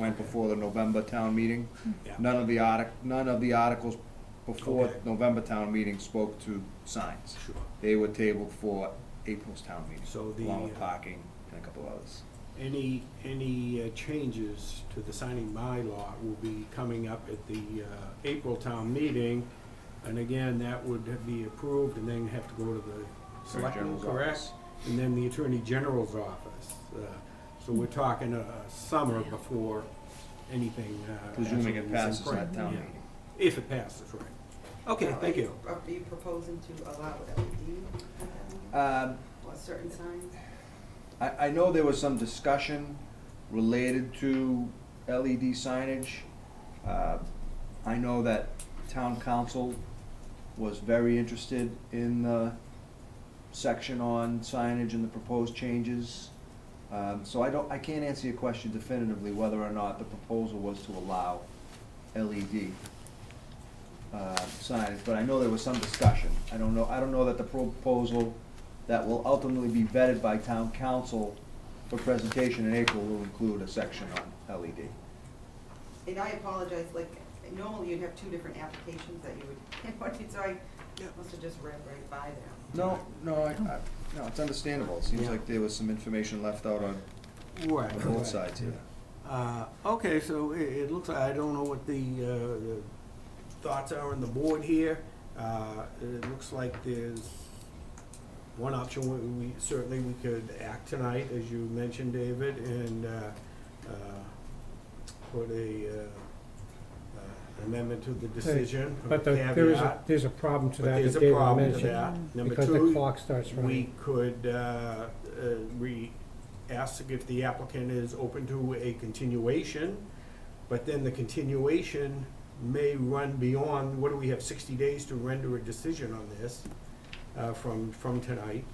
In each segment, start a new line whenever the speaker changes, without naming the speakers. went before the November town meeting.
Yeah.
None of the artic, none of the articles before
Okay.
November town meeting spoke to signs.
Sure.
They were tabled for April's town meeting,
So the,
along with
uh,
parking and a couple others.
any, any uh, changes to the signing bylaw will be coming up at the uh, April town meeting. And again, that would be approved and then have to go to the selectmen,
General's
correct?
office.
And then the Attorney General's office. Uh, So we're talking a a summer before anything. uh,
Presuming it
actually is in
passes
print.
that town
Yeah.
meeting.
If it passes, right. Okay, thank you.
Are you proposing to allow it LED
Um,
or certain signs?
I, I know there was some discussion related to LED signage. Uh, I know that town council was very interested in the section on signage and the proposed changes. Um, so I don't, I can't answer your question definitively whether or not the proposal was to allow LED uh, signage, but I know there was some discussion. I don't know, I don't know that the proposal that will ultimately be vetted by town council for presentation in April will include a section on E LED.
And I apologize, like, normally you'd have two different applications that you would, so I must have just read right by them.
No, no, I, I, no, it's understandable. It seems
Yeah.
like there was some information left out on
Right.
on
right.
both sides here.
Uh, Okay, so it, it looks, like I don't know what the, uh, the thoughts are on the board here. Uh, it looks like there's one option, we, we, certainly we could act tonight, as you mentioned, David, and, uh, uh, put a, uh, uh, amendment to the decision.
But the- there is, a-
caveat.
there's a problem to
But
that
there's
that
a
David
problem to
mentioned.
that. Number
Because the
two,
clock starts
we
running.
could, uh, uh, we ask if the applicant is open to a continuation, but then the continuation may run beyond, what do we have, sixty days to render a decision on this, uh, from, from tonight?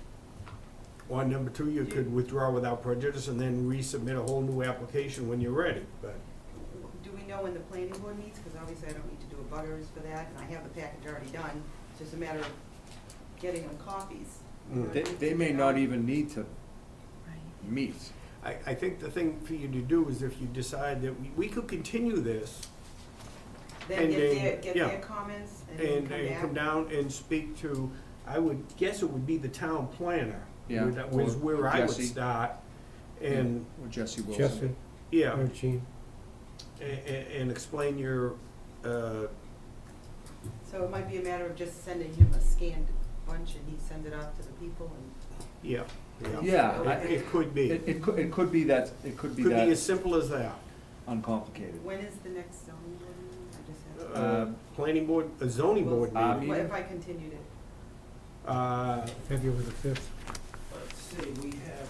Or number two, you could withdraw without prejudice and then resubmit a whole new application when you're ready, but,
Do we know when the planning board meets? Because obviously I don't need to do a butters for that, and I have the package already done. It's just a matter of getting them copies.
mm.
They, they may not even need to meet.
I, I think the thing for you to do is if you decide that we, we could continue this,
Then get
And, uh,
their, get
yeah.
their comments and
and,
then
and come
come back.
down and speak to, I would guess it would be the town planner.
Yeah,
would- That was
or
where I would
Jesse.
start. And,
Or Jesse
Jesse,
Wilson.
yeah,
or Gene,
and, and explain your, uh,
So it might be a matter of just sending him a scanned bunch and he send it off to the people and.
yeah.
Yeah,
It,
I-
it could be.
It, it could, it could be that, it could be
Could be as
that
simple as that.
uncomplicated.
When is the next zoning board meeting? I just have.
Uh, Planning board, a zoning board
Well,
What
meeting.
if I continued it?
Uh,
February the fifth.
let's see, we have,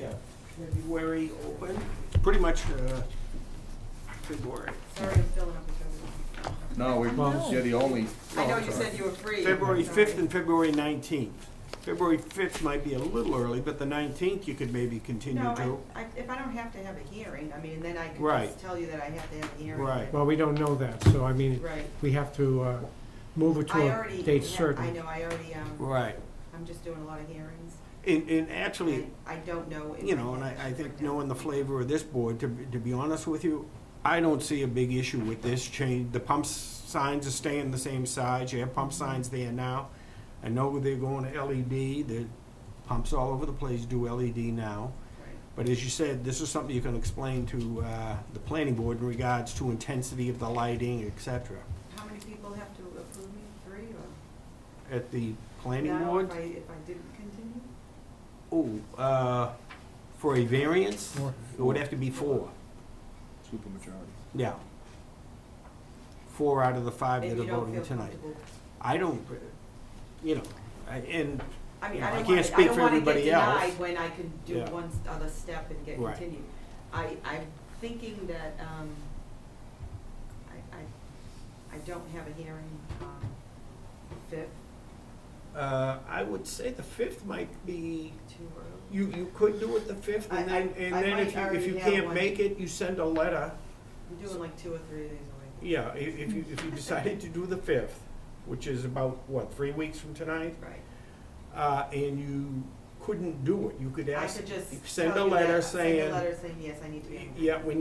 yeah, February open, pretty much, uh, February.
Sorry, I'm filling up with everyone.
No, we,
Well-
you're the only,
I know you said you were free.
February
Sorry.
5th and February 19th. February 5th might be a little early, but the 19th you could maybe continue to.
No, I, I, if I don't have to have a hearing, I mean, then I could
Right.
just tell you that I have to have a hearing.
Right.
Well, we don't know that, so I mean,
Right.
we have to uh, move it
I
to
already.
a date
ha- I
certain.
know, I already, um,
Right.
I'm just doing a lot of hearings.
And, and actually,
and I don't know. if
you know, and I, I think knowing the flavor of this board, to, be- to be honest with you, I don't see a big issue with this change. The pump signs are staying the same size, you have pump
Mm-hmm.
signs there now. I know they're going to LED, the pumps all over the place do LED now.
Right.
But as you said, this is something you can explain to uh, the planning board in regards to intensity of the lighting, et cetera.
How many people have to approve me? Three or?
At the planning
No,
board,
If I, if I didn't continue?
oh, uh, for a variance,
Four.
it would have to be four,
super majority.
yeah. Four out of the five
If
that
you
are
don't
voting
feel
tonight.
comfortable.
I don't, uh, you know, I- and,
I mean,
Yeah,
I
I
don't
can't
want, I
speak
don't
for
want to get
everybody else.
denied when I can do
Yeah.
one s- other step and get
Right.
continued. I, I'm thinking that, um, I, I, I don't have a hearing, um, fifth,
uh, I would say the fifth might be,
too early.
you, you could do it the fifth, and
I- I-
then, and
I
then
might
if you, if you
already have
can't
one.
make it, you send a letter
I'm doing like two or three of these
Yeah, i- if you, if you decided to do the fifth, which is about, what, three weeks from tonight?
away. Right.
Uh, and you couldn't do it, you could
I
ask,
could just
send a
tell you that-
letter
Send a
saying,
letter saying, yes, I need to be.
yeah, we